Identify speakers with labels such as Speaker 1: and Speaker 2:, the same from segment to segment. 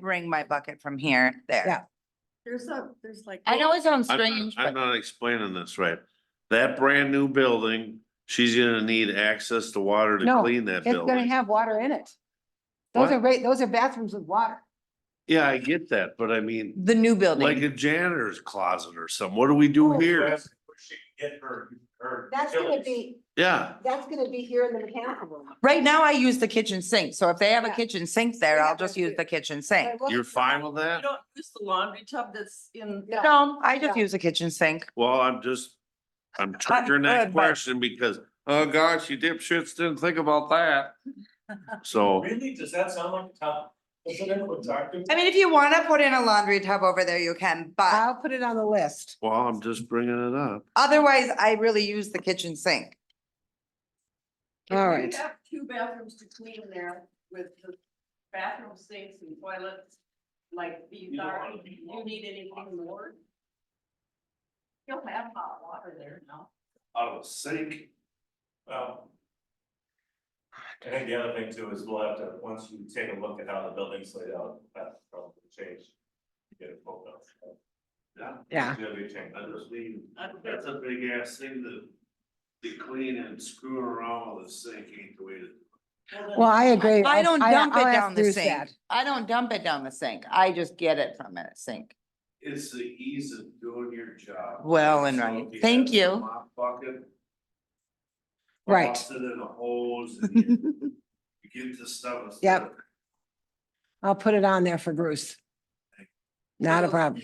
Speaker 1: bring my bucket from here, there.
Speaker 2: Yeah.
Speaker 3: There's a, there's like.
Speaker 4: I know it sounds
Speaker 5: I'm not-
Speaker 4: strange,
Speaker 5: I'm
Speaker 4: but
Speaker 5: not explaining this right. That brand new building, she's gonna need access to water to
Speaker 2: No,
Speaker 5: clean that
Speaker 2: It's gonna
Speaker 5: building.
Speaker 2: have water in it. Those
Speaker 5: What?
Speaker 2: are right, those are bathrooms with water.
Speaker 5: Yeah, I get that, but I mean,
Speaker 1: The new
Speaker 5: like
Speaker 1: building.
Speaker 5: a janitor's closet or something. What do we do here?
Speaker 6: That's where she can get her, her.
Speaker 7: That's gonna
Speaker 6: utilities.
Speaker 7: be,
Speaker 5: Yeah,
Speaker 7: that's gonna be here in the mechanical room.
Speaker 1: Right now I use the kitchen sink, so if they have a
Speaker 7: Yeah.
Speaker 1: kitchen sink there,
Speaker 7: Yeah,
Speaker 1: I'll just
Speaker 7: that's
Speaker 1: use
Speaker 7: good.
Speaker 1: the kitchen sink.
Speaker 7: But we'll-
Speaker 5: you're fine with
Speaker 3: You
Speaker 5: that?
Speaker 3: don't use the laundry tub that's in.
Speaker 7: No.
Speaker 1: No, I just
Speaker 7: um, Yeah.
Speaker 1: use a kitchen sink.
Speaker 5: Well, I'm just, I'm triggering
Speaker 1: good,
Speaker 5: that
Speaker 1: but-
Speaker 5: question because, oh gosh, you dipshits didn't think about that. So,
Speaker 6: Really, does that sound like a town? Does it ever talk to?
Speaker 1: I mean, if you wanna put in a laundry tub over there, you can,
Speaker 7: Uh,
Speaker 1: but
Speaker 2: I'll put it on the list.
Speaker 5: well, I'm just bringing it up.
Speaker 1: otherwise I really use the kitchen sink.
Speaker 3: If
Speaker 2: All
Speaker 3: you
Speaker 2: right.
Speaker 3: have Two bathrooms to clean there with the bathroom sinks and toilets, like these
Speaker 6: You don't
Speaker 3: are,
Speaker 6: want to be-
Speaker 3: you need anything more? You'll have hot water there now.
Speaker 6: Out of the sink. Well. I think the other thing too is we'll have to, once you take a look at how the building's laid out, that's probably changed. Get it pulled up.
Speaker 2: Yeah.
Speaker 6: It's gonna be changed.
Speaker 5: I just mean, that's a big ass thing to, to clean and screw around with a sink ain't the way to.
Speaker 2: Well, I agree.
Speaker 1: I don't dump
Speaker 2: I'll
Speaker 1: it
Speaker 2: ask
Speaker 1: down the
Speaker 2: Bruce
Speaker 1: sink.
Speaker 2: that.
Speaker 1: I don't dump it down the sink. I just get it from a sink.
Speaker 5: It's the ease of doing your job.
Speaker 1: Well and right. Thank you.
Speaker 2: Right.
Speaker 5: It in a hose and you, you get the stuff. instead
Speaker 2: Yep.
Speaker 5: of-
Speaker 2: I'll put it on there for Bruce. Not a problem.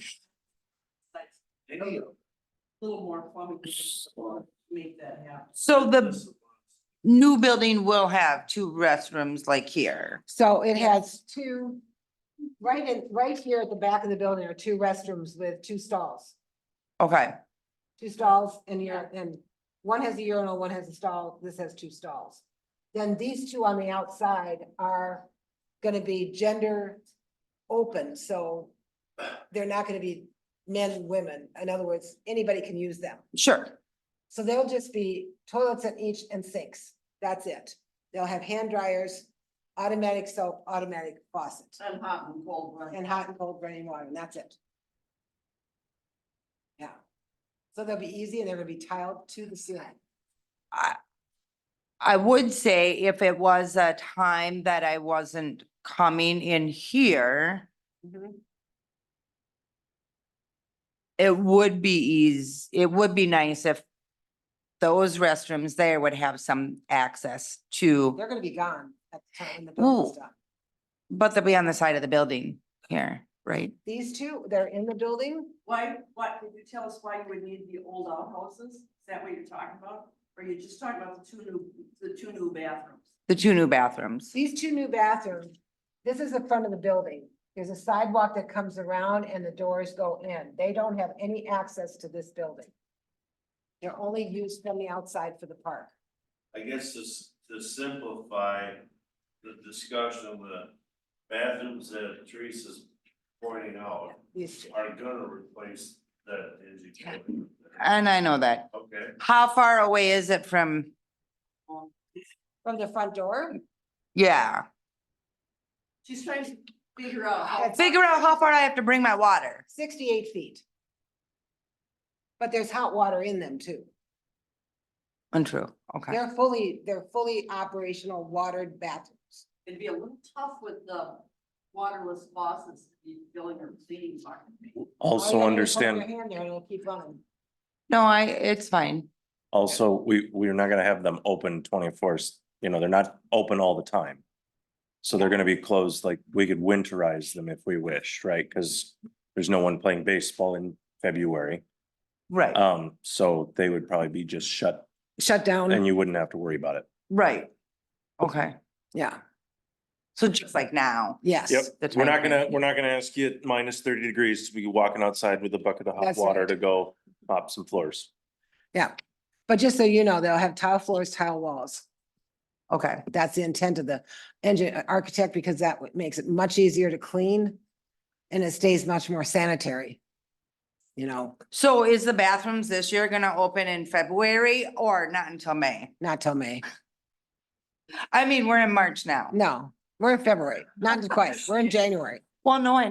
Speaker 3: That's
Speaker 5: Any of
Speaker 3: a little more plumbing to make that happen.
Speaker 1: So the
Speaker 5: this.
Speaker 1: new building will have two restrooms like here.
Speaker 2: So it has two, right in, right here at the back of the building are two restrooms with two stalls.
Speaker 1: Okay,
Speaker 2: Two stalls and your, and one has a urinal, one has a stall, this has two stalls. Then these two on the outside are gonna be gender open, so they're not gonna be men and women. In other words, anybody can use them.
Speaker 1: sure.
Speaker 2: So they'll just be toilets at each and sinks. That's it. They'll have hand dryers, automatic soap, automatic faucet,
Speaker 3: And hot and cold running.
Speaker 2: and hot and cold running water, and that's it. Yeah. So they'll be easy and they're gonna be tiled to the ceiling.
Speaker 1: I would say if it was a time that I wasn't coming in here, it would be easy, it would be nice if those restrooms there would have some access to,
Speaker 2: They're gonna be gone at the time when the building's
Speaker 1: Ooh.
Speaker 2: done.
Speaker 1: but they'll be on the side of the building here, right?
Speaker 2: These two, they're in the building.
Speaker 3: Why, what, did you tell us why you would need the old outhouses? Is that what you're talking about? Or you're just talking about the two new, the two new bathrooms?
Speaker 1: The two new bathrooms.
Speaker 2: These two new bathrooms, this is the front of the building. There's a sidewalk that comes around and the doors go in. They don't have any access to this building. They're only used from the outside for the park.
Speaker 5: I guess to, s- to simplify the discussion, the bathrooms that Teresa's pointing out
Speaker 2: These two.
Speaker 5: are gonna replace that dingy toilet.
Speaker 1: And I know that.
Speaker 5: Okay.
Speaker 1: How far away is it from,
Speaker 2: From the front door?
Speaker 1: yeah,
Speaker 3: She's trying to figure out. how-
Speaker 2: That's-
Speaker 1: figure out how far I have to bring my water.
Speaker 2: Sixty-eight feet. But there's hot water in them too.
Speaker 1: Untrue, okay.
Speaker 2: They're fully, they're fully operational watered bathrooms.
Speaker 3: It'd be a little tough with the waterless faucets, to be filling her cleaning bucket.
Speaker 8: Also understand,
Speaker 1: No, I, it's fine.
Speaker 8: also, we, we're not gonna have them open twenty-four, you know, they're not open all the time. So they're gonna be closed, like, we could winterize them if we wish, right? Cause there's no one playing baseball in February.
Speaker 1: Right,
Speaker 8: Um, so they would probably be just shut
Speaker 2: Shut
Speaker 8: and
Speaker 2: down,
Speaker 8: you wouldn't have to worry about it.
Speaker 1: right. Okay,
Speaker 2: yeah,
Speaker 1: so just like now.
Speaker 2: yes.
Speaker 8: Yep,
Speaker 1: the
Speaker 8: we're not
Speaker 1: time
Speaker 8: gonna,
Speaker 1: frame.
Speaker 8: we're not gonna ask you at minus thirty degrees to be walking outside with a bucket of hot
Speaker 2: That's
Speaker 8: water
Speaker 2: right.
Speaker 8: to go mop some floors.
Speaker 2: But just so you know, they'll have tile floors, tile walls.
Speaker 1: Okay,
Speaker 2: That's the intent of the engine uh, architect because that w- makes it much easier to clean and it stays much more sanitary. You know,
Speaker 1: so is the bathrooms this year gonna open in February or not until May?
Speaker 2: not till May.
Speaker 1: I mean, we're in March now.
Speaker 2: No, we're in February, not quite. We're in January.
Speaker 1: Well, no, I